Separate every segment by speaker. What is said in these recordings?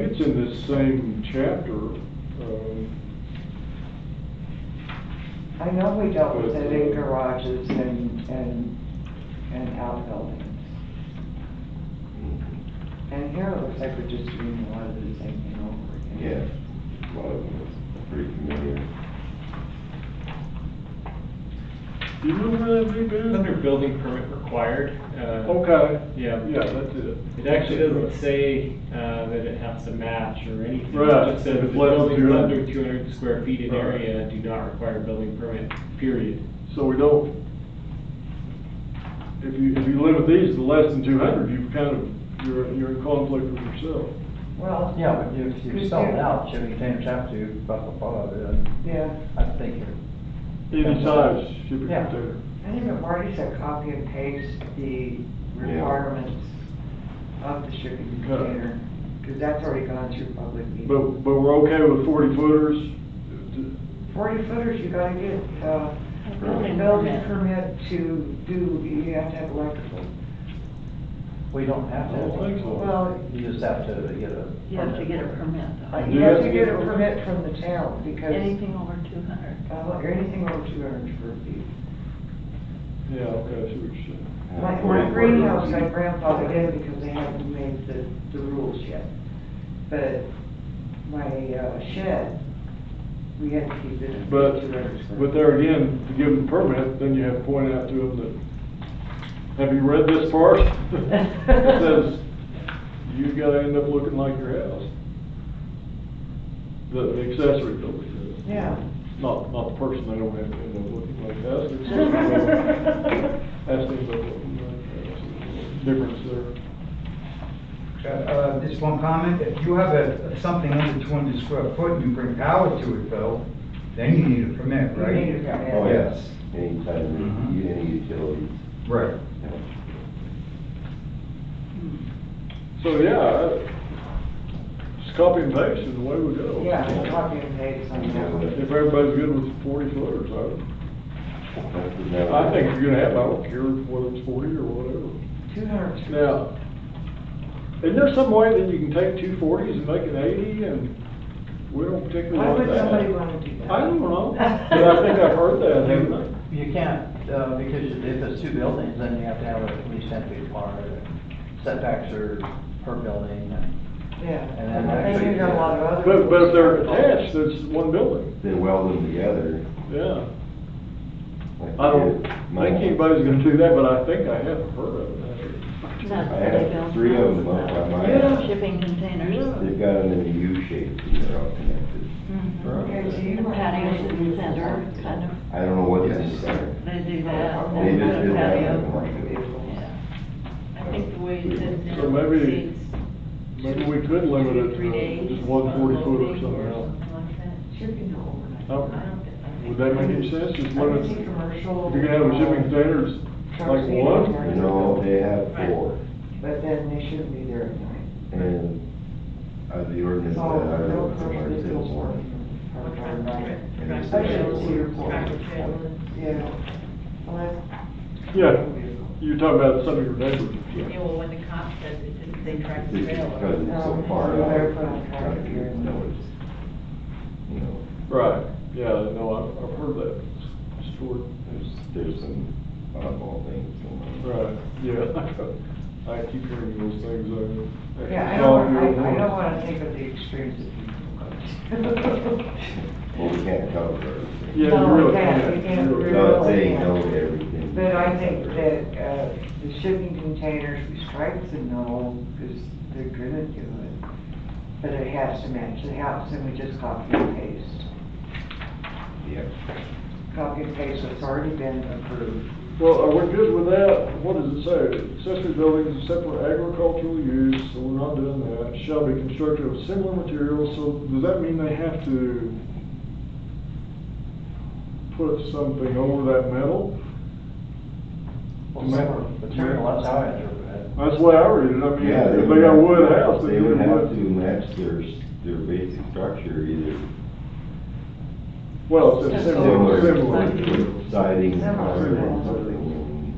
Speaker 1: in this same chapter, um,
Speaker 2: I know we dealt with it in garages and, and, and outbuildings. And here it looks like we're just doing a lot of the same thing over again.
Speaker 3: Yeah, a lot of them is pretty familiar.
Speaker 1: do you remember that, Big Ben?
Speaker 4: Under building permit required, uh,
Speaker 1: Okay.
Speaker 4: Yeah.
Speaker 1: Yeah, that's it.
Speaker 4: it actually doesn't say, uh, that it has to match or anything.
Speaker 1: Right.
Speaker 4: It just says
Speaker 1: If
Speaker 4: the
Speaker 1: it's less than
Speaker 4: buildings
Speaker 1: 200.
Speaker 4: under two hundred square feet in
Speaker 1: Right.
Speaker 4: area do not require building permit, period.
Speaker 1: So we don't, if you, if you limit these to less than two hundred, you've kind of, you're, you're in conflict with yourself.
Speaker 5: Well, yeah, but if you sell it out, you can have to, blah, blah, blah, then
Speaker 2: Yeah,
Speaker 5: I think you're,
Speaker 1: Any size should be
Speaker 5: Yeah.
Speaker 1: considered.
Speaker 2: I think if Marty said copy and paste the requirements of the shipping container, because that's already gone through public meeting.
Speaker 1: But, but we're okay with forty footers?
Speaker 2: Forty footers, you gotta get, uh,
Speaker 3: Building
Speaker 2: building permit to do, you have to have electrical.
Speaker 5: we don't have
Speaker 1: I don't think
Speaker 5: to.
Speaker 2: Oh.
Speaker 1: so.
Speaker 2: Well,
Speaker 5: You just have to get a.
Speaker 6: You have to get a permit,
Speaker 2: Uh,
Speaker 6: though.
Speaker 2: You have to get a permit from the town because,
Speaker 6: Anything over two hundred.
Speaker 2: uh, anything over two hundred square feet.
Speaker 1: Yeah, okay, I see what you're saying.
Speaker 2: My, my greenhouse, my grandfather did because they haven't made the, the rules yet. But my uh, shed, we had to keep it at two
Speaker 1: But,
Speaker 2: hundred square.
Speaker 1: but there again, to give them permit, then you have to point out to them that, have you read this part? It Says, you gotta end up looking like your house. The the accessory building does.
Speaker 2: Yeah.
Speaker 1: Not, not the person, they don't have to end up looking like that. It's just- That's the, the difference there.
Speaker 7: Uh, uh, Just one comment, if you have a, something under two hundred square foot and you bring power to it though, then you need a permit,
Speaker 2: You
Speaker 7: right?
Speaker 2: need a permit.
Speaker 3: Oh,
Speaker 7: Yes.
Speaker 3: yes,
Speaker 1: Mm-hmm.
Speaker 3: anytime, you- any utilities.
Speaker 7: Right.
Speaker 3: yeah.
Speaker 1: So, yeah, I- just copy and paste is the way we go.
Speaker 2: Yeah, copy and paste on that one.
Speaker 1: If everybody's good with forty footers, I, I think if you're gonna have, I don't care whether it's forty or whatever.
Speaker 2: Two hundred.
Speaker 1: Now, isn't there some way that you can take two forties and make an eighty and we don't particularly
Speaker 2: Why
Speaker 1: want
Speaker 2: would
Speaker 1: that?
Speaker 2: somebody wanna do that?
Speaker 1: I don't know, but I think I've heard that, haven't I?
Speaker 5: You you can't, uh, because if it's two buildings, then you have to have at least ten feet apart, and setbacks are per building, and
Speaker 2: Yeah,
Speaker 5: And then
Speaker 2: I think you got a lot of other.
Speaker 1: But, but if they're attached, that's one building,
Speaker 3: They weld them together.
Speaker 1: yeah.
Speaker 3: like
Speaker 1: I don't
Speaker 3: they did
Speaker 1: think
Speaker 3: my-
Speaker 1: anybody's gonna do that, but I think I have heard of that.
Speaker 3: I have three of them up on my
Speaker 2: Yeah.
Speaker 6: Shipping containers.
Speaker 3: They've got them in a U shape and they're all connected.
Speaker 2: Okay, so
Speaker 3: Right.
Speaker 2: you might-
Speaker 6: Patios in the Mm-hmm. center, kind of,
Speaker 3: I don't know what these are.
Speaker 6: they do that.
Speaker 2: Yeah.
Speaker 3: They
Speaker 6: then
Speaker 3: just
Speaker 6: put a
Speaker 3: did that.
Speaker 6: patio.
Speaker 2: Vehicles.
Speaker 6: Yeah. I think the way it is now.
Speaker 1: So maybe-
Speaker 6: exceeds
Speaker 1: Maybe we could limit it
Speaker 6: three days,
Speaker 1: to just one forty foot or something else.
Speaker 6: like that.
Speaker 2: Should be no overnight.
Speaker 1: Oh.
Speaker 2: I don't think- I
Speaker 1: Would
Speaker 2: think-
Speaker 1: that make any sense, just
Speaker 2: I
Speaker 1: limit,
Speaker 2: think
Speaker 1: if
Speaker 2: commercial. uh,
Speaker 1: you're gonna have a shipping container, it's like one?
Speaker 3: You know, they have four.
Speaker 2: But then they shouldn't be there at night.
Speaker 3: And, uh, the ordinance
Speaker 2: So,
Speaker 3: that I
Speaker 2: no
Speaker 3: wrote
Speaker 2: commercial
Speaker 3: somewhere says
Speaker 2: vehicles
Speaker 3: one.
Speaker 2: are required by it.
Speaker 3: And they
Speaker 2: I
Speaker 3: say
Speaker 2: should see your
Speaker 3: four.
Speaker 2: point. Yeah. Well, that's-
Speaker 1: Yeah, you're talking about some of your neighbors.
Speaker 8: Yeah, well, when the cop said it, didn't say track
Speaker 3: It's
Speaker 8: the
Speaker 3: just because
Speaker 8: trailer.
Speaker 3: it's so
Speaker 2: Um,
Speaker 3: far
Speaker 2: so
Speaker 3: out.
Speaker 2: they're put on
Speaker 3: trying to
Speaker 2: track
Speaker 3: get
Speaker 2: here.
Speaker 3: noticed, You know,
Speaker 1: Right, yeah, no, I've, I've heard that story.
Speaker 3: there's, there's some oddball things going on.
Speaker 1: Right, yeah. I keep hearing those things, I.
Speaker 2: Yeah, I
Speaker 1: saw
Speaker 2: don't,
Speaker 1: it the
Speaker 2: I, I
Speaker 1: other
Speaker 2: don't
Speaker 1: morning.
Speaker 2: wanna think of the extremes of people.
Speaker 3: Well, we can't cover everything.
Speaker 1: Yeah,
Speaker 2: No,
Speaker 1: you really
Speaker 2: we can't, we
Speaker 1: can't.
Speaker 2: can't, we
Speaker 3: Not
Speaker 2: really
Speaker 3: saying
Speaker 2: can't.
Speaker 3: no to everything.
Speaker 2: But I think that, uh, the shipping containers, we strike the no, because they're gonna do it. But it has to match the house, and we just copy and paste.
Speaker 3: Yeah.
Speaker 2: Copy and paste what's already been approved.
Speaker 1: Well, are we good with that? What does it say? Accessory buildings except for agricultural use, so we're not doing that, shall be constructed of similar materials, so does that mean they have to put something over that metal?
Speaker 5: well, separate material, that's how I interpret it.
Speaker 1: That's the way I read it, I mean,
Speaker 3: Yeah,
Speaker 1: if they got
Speaker 3: would-
Speaker 1: wood house,
Speaker 3: They would have to
Speaker 1: wood-
Speaker 3: match their, s- their basic structure either.
Speaker 1: Well, it's similar,
Speaker 3: Similar,
Speaker 1: similar.
Speaker 3: with siding,
Speaker 2: Similar.
Speaker 3: color, and something,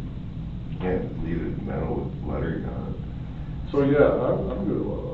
Speaker 3: and can't leave it metal with lettering on it.
Speaker 1: So, yeah, I'm, I'm good with all